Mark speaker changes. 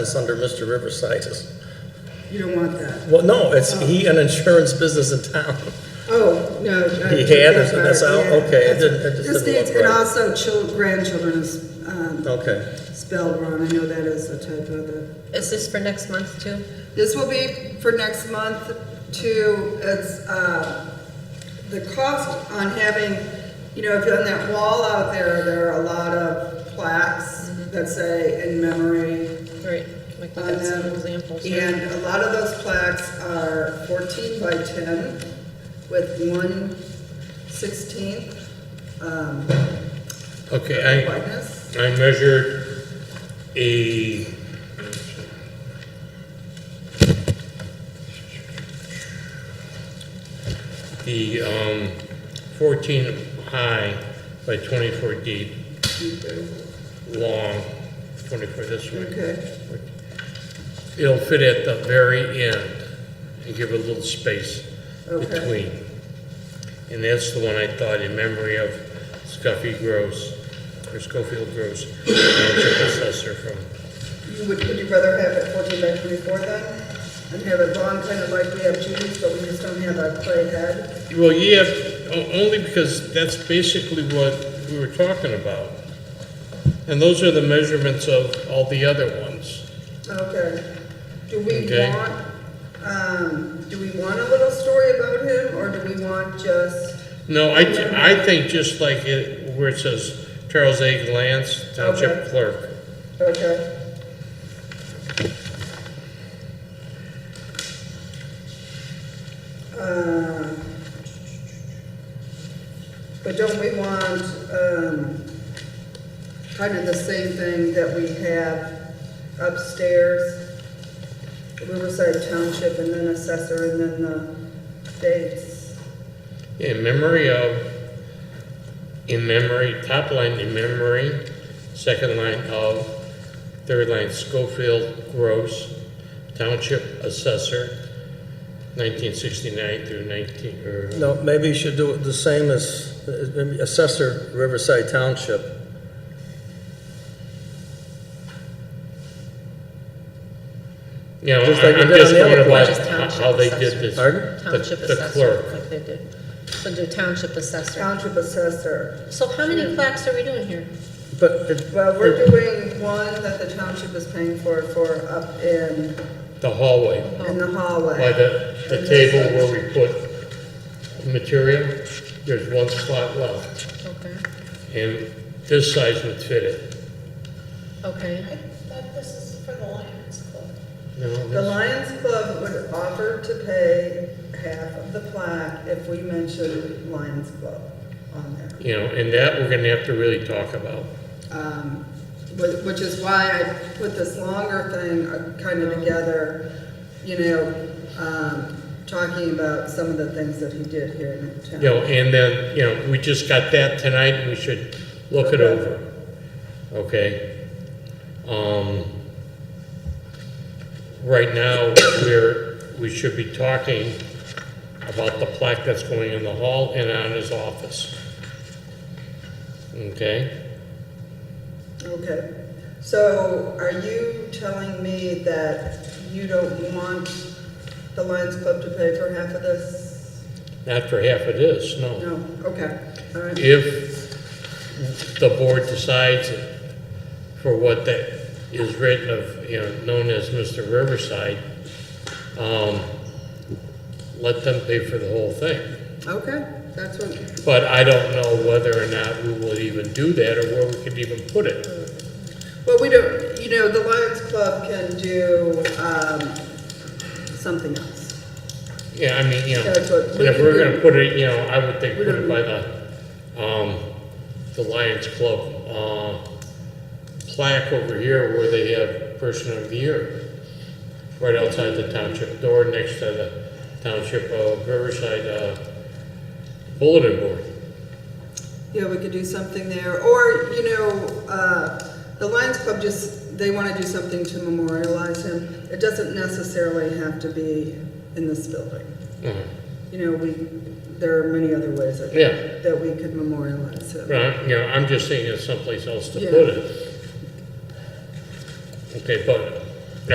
Speaker 1: is under Mr. Riverside's.
Speaker 2: You don't want that.
Speaker 1: Well, no, it's, he an insurance business in town.
Speaker 2: Oh, no. I
Speaker 1: He
Speaker 2: took
Speaker 1: had
Speaker 2: that
Speaker 1: it, and that's
Speaker 2: back,
Speaker 1: out?
Speaker 2: yeah.
Speaker 1: Okay, it didn't- it just
Speaker 2: This
Speaker 1: didn't
Speaker 2: needs-
Speaker 1: look
Speaker 2: And
Speaker 1: right.
Speaker 2: also children, grandchildren is um,
Speaker 1: Okay.
Speaker 2: spelled wrong. I know that is a typo there.
Speaker 3: Is this for next month too?
Speaker 2: This will be for next month to, it's, uh, the cost on having, you know, if you're on that wall out there, there are a lot of plaques that say in memory
Speaker 3: Right, like we
Speaker 2: on
Speaker 3: got some
Speaker 2: them.
Speaker 3: examples. right?
Speaker 2: Um, And a lot of those plaques are fourteen by ten with one sixteenth, um,
Speaker 4: Okay, I,
Speaker 2: whiteness.
Speaker 4: I measured a the um, 14 high by 24 deep, long, 24 this way.
Speaker 2: Okay.
Speaker 4: It'll fit at the very end and give a little space
Speaker 2: Okay.
Speaker 4: between. And that's the one I thought in memory of Scuffy Gross, or Schofield Gross, township assessor from,
Speaker 2: You would, would you rather have it fourteen by twenty-four then? And have it long, kind of like we have Judy's, but we just don't have a clay head?
Speaker 4: well, yeah, o- only because that's basically what we were talking about. And those are the measurements of all the other ones.
Speaker 2: Okay. Do we
Speaker 4: Okay.
Speaker 2: want, um, do we want a little story about him, or do we want just,
Speaker 4: No, I, thi- I think just like it, where it says Charles A. Lance, township
Speaker 2: Okay.
Speaker 4: clerk.
Speaker 2: okay? Um, But don't we want, um, kind of the same thing that we have upstairs? Riverside Township and then assessor and then the dates.
Speaker 4: In memory of, in memory, top line in memory, second line of, third line Schofield Gross, Township Assessor, 1969 through 19, or,
Speaker 1: No, maybe you should do it the same as uh, maybe assessor Riverside Township.
Speaker 4: you know,
Speaker 1: Just like
Speaker 4: I-
Speaker 1: you
Speaker 4: I'm
Speaker 1: did
Speaker 4: just
Speaker 1: on the
Speaker 4: going
Speaker 1: other
Speaker 4: by
Speaker 1: one.
Speaker 3: Just
Speaker 4: ho-
Speaker 3: Township
Speaker 4: how they did
Speaker 3: Assessor.
Speaker 4: this.
Speaker 1: Pardon?
Speaker 4: The-
Speaker 3: Township
Speaker 4: The
Speaker 3: assessor,
Speaker 4: clerk.
Speaker 3: like they did. So do township assessor.
Speaker 2: Township assessor.
Speaker 3: So how many plaques are we doing here?
Speaker 1: But it,
Speaker 2: Well, we're doing one that the township is paying for, for up in,
Speaker 4: The hallway,
Speaker 2: in the hallway.
Speaker 4: by the, the table where we put material, there's one spot left,
Speaker 3: Okay,
Speaker 4: and this size would fit it.
Speaker 3: okay.
Speaker 4: No,
Speaker 2: The
Speaker 4: this-
Speaker 2: Lions Club would offer to pay half of the plaque if we mention Lions Club on there.
Speaker 4: You know, and that we're gonna have to really talk about.
Speaker 2: Um, whi- Which is why I put this longer thing uh, kind of together, you know, um, talking about some of the things that he did here in town.
Speaker 4: You know, and then, you know, we just got that tonight, and we should look it over, okay? Um, right now, we're, we should be talking about the plaque that's going in the hall and on his office. Okay?
Speaker 2: Okay, so are you telling me that you don't want the Lions Club to pay for half of this?
Speaker 4: Not for half of this, no.
Speaker 2: No, okay, all right.
Speaker 4: If the board decides for what that is written of, you know, known as Mr. Riverside, um, let them pay for the whole thing.
Speaker 2: Okay, that's what,
Speaker 4: But I don't know whether or not we would even do that or where we could even put it.
Speaker 2: well, we don't, you know, the Lions Club can do, um, something else.
Speaker 4: Yeah, I mean, you know,
Speaker 2: That's what we
Speaker 4: and if
Speaker 2: can
Speaker 4: we're
Speaker 2: do.
Speaker 4: gonna put it, you know, I would think
Speaker 2: We
Speaker 4: put it
Speaker 2: don't-
Speaker 4: by the, um, the Lions Club, uh, plaque over here where they have Person of the Year. Right outside the township door, next to the township of Riverside, uh, bulletin board.
Speaker 2: Yeah, we could do something there, or, you know, uh, the Lions Club just, they wanna do something to memorialize him. It doesn't necessarily have to be in this building.
Speaker 4: Mhm.
Speaker 2: You know, we, there are many other ways that,
Speaker 4: Yeah.
Speaker 2: that we could memorialize him.
Speaker 4: But I'm, you know, I'm just thinking of someplace else to
Speaker 2: Yeah.
Speaker 4: put it. Okay, but